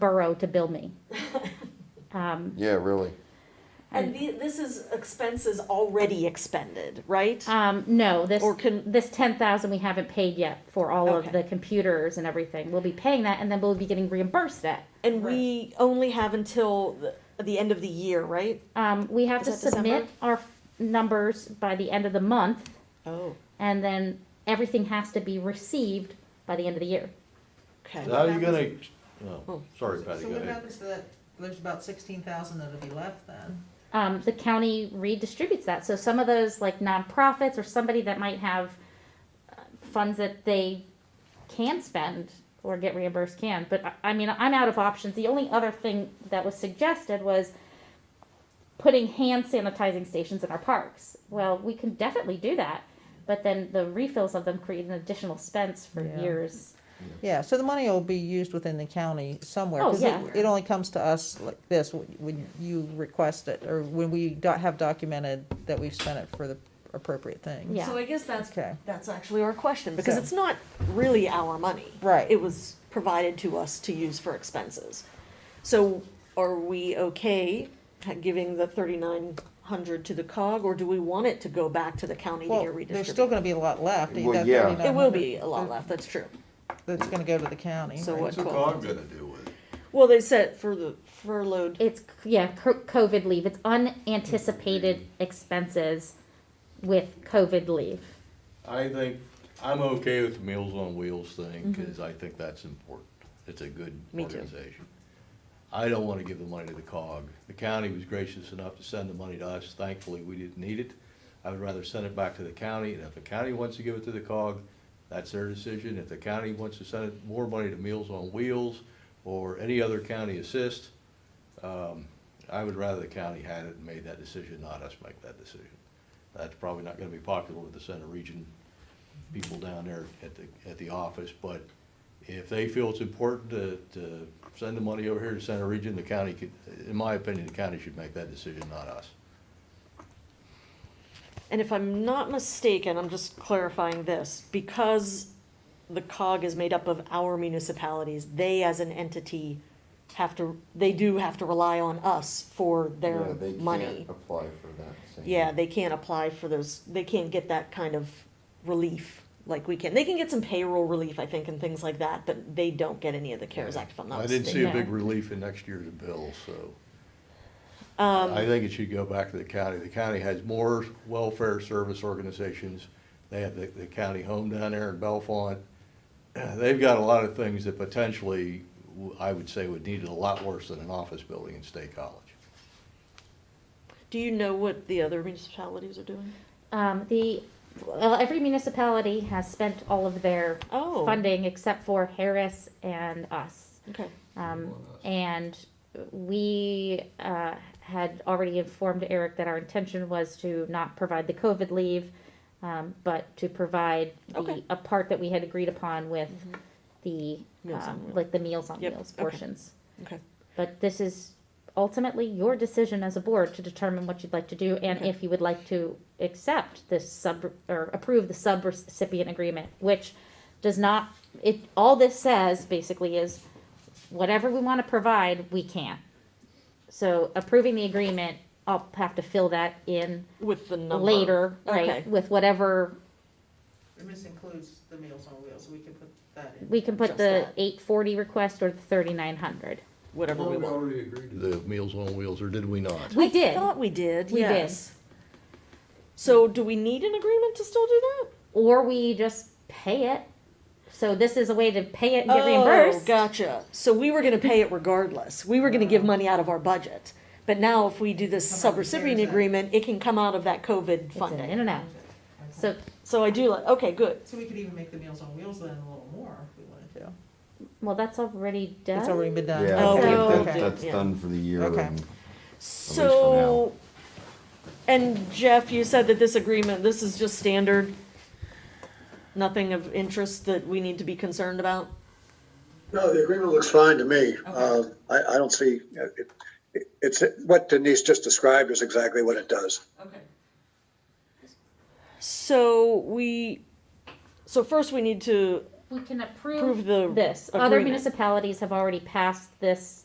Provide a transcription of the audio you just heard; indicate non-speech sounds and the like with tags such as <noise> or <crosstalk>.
borough to bill me. Um, Yeah, really. And the, this is expenses already expended, right? Ah. um, no, this, Or can, this ten thousand we haven't paid yet for all of Okay. the computers and everything. We'll be paying that and then we'll be getting reimbursed that. and we only have until the, the end of the year, right? Um, we have Is to that December? submit our f- numbers by the end of the month Oh, and then everything has to be received by the end of the year. okay. So how are you gonna, oh, sorry Patty, So go what ahead. happens to that, there's about sixteen thousand that'll be left then? um, the county redistributes that. So some of those like nonprofits or somebody that might have uh, funds that they can spend or get reimbursed can. But I- I mean, I'm out of options. The only other thing that was suggested was putting hand sanitizing stations in our parks. Well, we can definitely do that. But then the refills of them create an additional expense for Yeah. years. Yeah, so the money will be used within the county somewhere. Oh, 'cause it- yeah. It only comes to us like this, wh- when you request it, or when we do- have documented that we've spent it for the appropriate thing. Yeah. So I guess that's, Okay, that's actually our question, because So- it's not really our money. Right. It was provided to us to use for expenses. So are we okay ha- giving the thirty-nine hundred to the cog, or do we want it to go back to the county to well, get there's still redistributed? gonna be a lot left. Well, that yeah. It will be 3,900 a lot left, that's true. That's gonna go to the county. So right? what What's the cog? cog gonna do with it? Well, they said for the furloughed It's, yeah, co- COVID leave. It's unanticipated expenses with COVID leave. I think, I'm okay with the Meals on Wheels thing, cause I think that's important. It's a good Mm-hmm. Me too. organization. I don't wanna give the money to the cog. The county was gracious enough to send the money to us. Thankfully, we didn't need it. I would rather send it back to the county, and if the county wants to give it to the cog, that's their decision. If the county wants to send it more money to Meals on Wheels or any other county assist, um, I would rather the county had it and made that decision, not us make that decision. That's probably not gonna be popular with the Center Region people down there at the, at the office, but if they feel it's important to, to send the money over here to Center Region, the county could, in my opinion, the county should make that decision, not us. And if I'm not mistaken, I'm just clarifying this, because the cog is made up of our municipalities, they as an entity have to, they do have to rely on us for Yeah, their they can't money. Apply for that same. Yeah, they can't apply for those, they can't get that kind of relief like we can. They can get some payroll relief, I think, and things like that, but they don't get any of the CARES Act, if I'm not I didn't see mistaken. a big relief in next year's bill, so. I think it should go back to the county. The county has more welfare service organizations. They have the, the county home down there in Bellefonte. <clears throat> They've got a lot of things that potentially, w- I would say, would need it a lot worse than an office building in State College. Do you know what the other municipalities are doing? Um, the, well, every municipality has spent all of their Oh. funding except for Harris and us. Okay, Um, and we, uh, had already informed Eric that our intention was to not provide the COVID leave, um, but to provide the, Okay. Mm-hmm. a part that we had agreed upon with the, Meals on um, Wheels. like the Meals on Yep, Wheels okay. portions. okay. But this is ultimately your decision as a board to determine what you'd like to do and Okay. if you would like to accept this sub, or approve the sub-recipient agreement, which does not, it, all this says basically is whatever we want to provide, we can. So approving the agreement, I'll have to fill that in With the number. later, Okay. right? With whatever, And this includes the Meals on Wheels, we can put that in. we can put Just the that. eight forty request or the thirty-nine hundred. Whatever we want. The Meals on Wheels, or did we not? We did. I thought we did, We did. yes. So do we need an agreement to still do that? or we just pay it. So this is a way to pay it and get Oh, reimbursed. gotcha. So we were gonna pay it regardless. We were gonna Uh-huh. give money out of our budget. But now if we do this Come out of the sub-recipient CARES Act. agreement, it can come out of that COVID It's an funding. internet. Okay. So So I do like, okay, good. So we could even make the Meals on Wheels then a little more if we wanted to. well, that's already done. It's already been done. Yeah, Oh, I we think approved that, it, that's yeah. done for the year Okay. and So, and Jeff, you said that this agreement, this is just standard? Nothing of interest that we need to be concerned about? No, the agreement looks fine to me. Uh, I, I don't see, it, it- it's, what Denise just described is exactly what it does. Okay. So we, so first we need to we can Approve approve the this. Other agreement. municipalities have already passed this